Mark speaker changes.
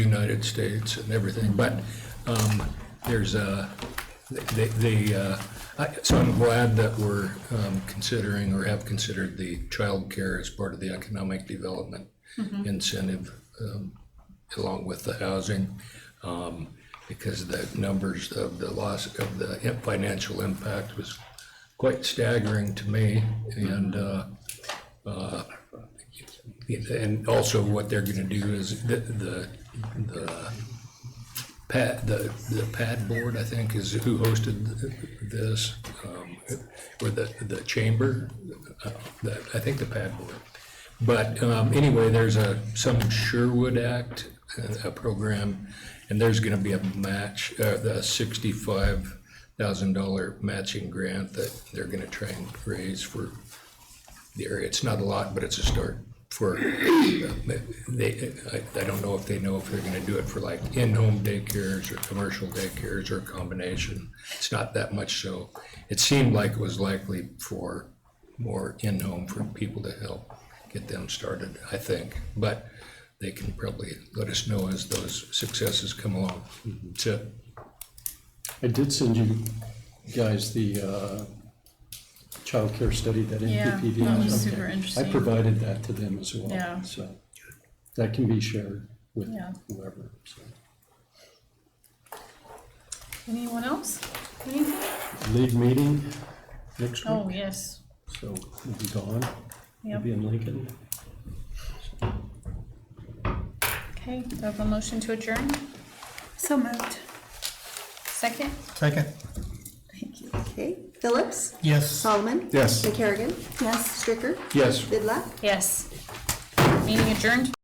Speaker 1: United States and everything, but um, there's a, they, they, uh, I- so I'm glad that we're um, considering or have considered the childcare as part of the economic development incentive um, along with the housing. um, Because the numbers of the loss of the financial impact was quite staggering to me. And uh, and also what they're gonna do is the, the, the pad, the, the pad board, I think, is who hosted this, um, or the, the chamber, uh, the, I think the pad board. But, um, anyway, there's a, some Sherwood Act, uh, a program, and there's gonna be a match, uh, the sixty-five thousand dollar matching grant that they're gonna try and raise for the area. It's not a lot, but it's a start for, they, I, I don't know if they know if they're gonna do it for like in-home daycares or commercial daycares or a combination. It's not that much, so it seemed like it was likely for more in-home for people to help get them started, I think. But they can probably let us know as those successes come along. So,
Speaker 2: I did send you guys the uh, childcare study that
Speaker 3: Yeah,
Speaker 2: NPPD.
Speaker 3: that was
Speaker 2: has.
Speaker 3: super interesting.
Speaker 2: I provided that to them as well.
Speaker 3: Yeah.
Speaker 2: So that can be shared with
Speaker 3: Yeah.
Speaker 2: whoever. so.
Speaker 3: Anyone else? Anything?
Speaker 2: League meeting next
Speaker 3: Oh,
Speaker 2: week,
Speaker 3: yes.
Speaker 2: so we'll be gone. We'll
Speaker 3: Yep.
Speaker 2: be in Lincoln.
Speaker 3: Okay, do I have a motion to adjourn?
Speaker 4: So moved.
Speaker 3: Second?
Speaker 5: Second.
Speaker 3: Thank you.
Speaker 6: Okay, Phillips?
Speaker 5: Yes.
Speaker 6: Solomon?
Speaker 5: Yes.
Speaker 6: McCarrigan?
Speaker 4: Yes.
Speaker 6: Stricker?
Speaker 2: Yes.
Speaker 6: Vidlac?
Speaker 3: Yes. Meeting adjourned.